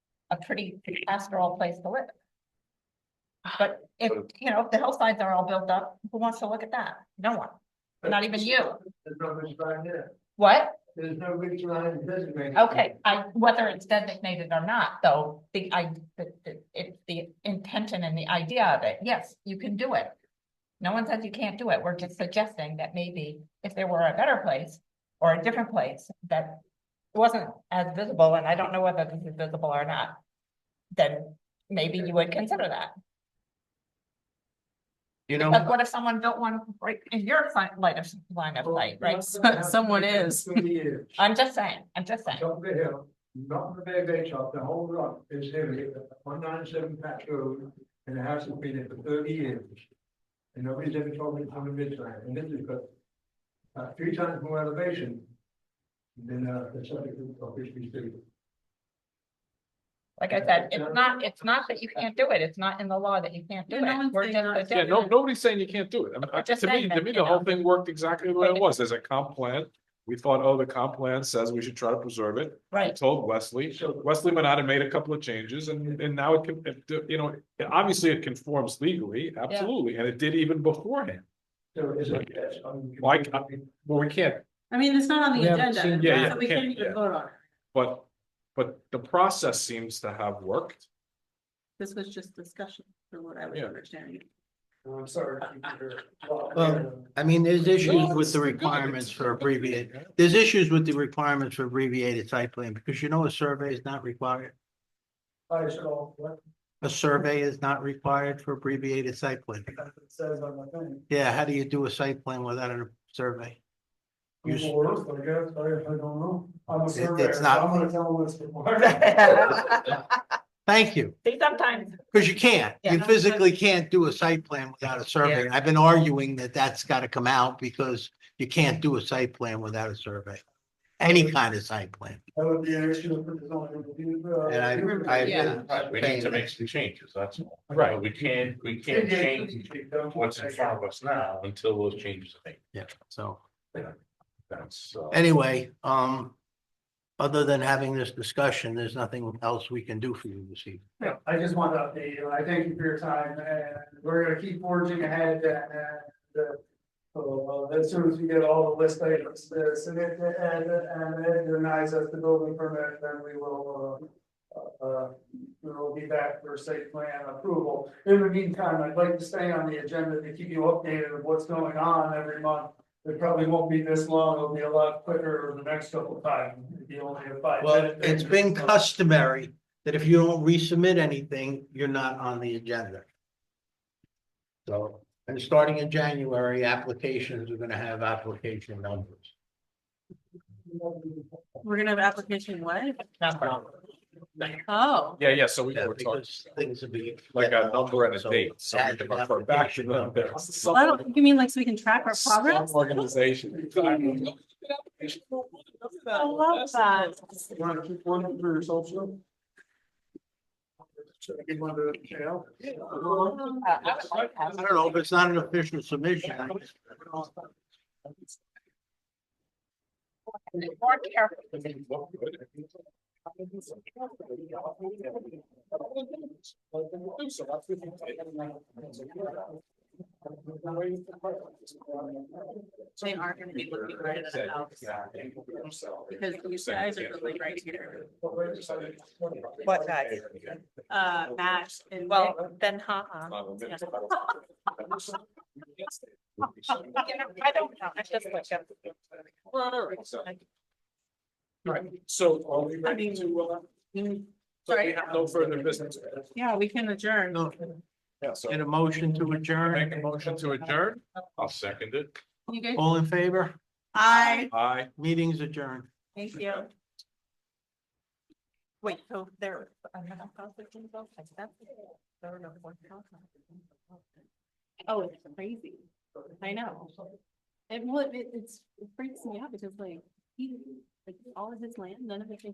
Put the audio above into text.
a pretty pastoral place to live. But if, you know, if the hillsides are all built up, who wants to look at that? No one, not even you. There's no ridge line there. What? There's no ridge line designated. Okay, I, whether it's designated or not, though, the, I, the, the- it, the intention and the idea of it, yes, you can do it. No one says you can't do it. We're just suggesting that maybe if there were a better place or a different place that wasn't as visible, and I don't know whether this is visible or not, then maybe you would consider that. You Like, know, what if someone built one right in your si- line of, line of sight, right? Someone is. I'm just saying, I'm just saying. Top of the hill, not the very base top, the whole lot is heavy, one nine seven patch road, and the house has been there for thirty years. And nobody's ever told me it's on the ridge line, and this is got uh, three times more elevation than, uh, the subject of which we speak. Like I said, it's not, it's not that you can't do it. It's not in the law that you can't do Yeah, no it. one's We're saying just not to do Yeah, no, suggesting- nobody's saying you can't do it. I mean, I- just To me, saying to that, me, you the whole know. thing worked exactly the way it Right. was. There's a comp plan. We thought, oh, the comp plan says we should try to preserve it. I Right, told Wesley, So- Wesley went out and made a couple of changes and, and now it can, it- you know, obviously it conforms legally, absolutely, and it did even beforehand. So is it, that's, I'm. Like, I- Well, we can't, I mean, it's not on We the haven't agenda, seen- Yeah, yeah, so we can't- can't yeah. even vote on it. but, but the process seems to have worked. This was just discussion for what I was Yeah. understanding. I'm sorry. Well, I mean, there's issues with the It's good. requirements for abbreviated, Yeah. there's issues with the requirements for abbreviated site plan, because you know a survey is not required. I saw what A survey is not required for abbreviated site plan. it says on my thing. Yeah, how do you do a site plan without a survey? You s- Google Earth, I guess, I, I don't know. I'm a It- surveyor, it's so not- I'm gonna tell them this before. Thank you, see, sometimes, because you can't, you Yeah. physically can't do a site plan without a survey. I've been arguing that that's gotta come out because you can't do a site plan without a survey. Any kind of site plan. That would be an issue if it's on your computer. And I- Remember- I- Yeah. Right, we need to make some changes, that's all. Right. We can't, we Yeah, can't yeah, change don't- what's in front of us now until those changes are made. Yeah, so. That's, uh, Anyway, um, other than having this discussion, there's nothing else we can do for you this evening. Yeah, I just wanted to update you. I thank you for your time and we're gonna keep forging ahead and, uh, the. So, uh, as soon as we get all the list items, uh, submit to Ed and Ed denies us the building permit, then we will, uh. Uh, we will be back for site plan approval. In the meantime, I'd like to stay on the agenda to keep you updated of what's going on every month. It probably won't be this long. It'll be a lot quicker over the next couple of times. It'd be only a five. Well, it's been customary that if you don't resubmit anything, you're not on the agenda. So, and starting in January, applications are gonna have application numbers. We're gonna have application what? number. Oh, Yeah, yeah, so we Yeah, were talking because things will be. like a number and a So date, so that we can should have refer to back be to shown. them. There's some- Oh, I don't, you mean like so we can track our progress? some Organization. Exactly. I love that. You wanna keep one for yourself, Joe? Should I give one to Michelle? Uh, I would like to I have- don't know, if it's not an official submission. I guess More careful. They are gonna be looking right at the house. Because these guys are really right here. What guys? Uh, Matt and Nick. Well, then, ha-ha. You know, I don't know, I just like them. Right, so are we ready to, uh, so we Sorry. have no further business? Yeah, we can adjourn. No, Yeah, so Get a motion to make adjourn, a motion to adjourn? I'll second it. You guys, all in favor, I, Aye. meetings adjourned. thank you. Wait, so there. I don't know how it's involved, like that. There are no more houses. Oh, it's crazy. I know. And well, it, it's, it freaks me out because like, he, like all of his land, none of it's in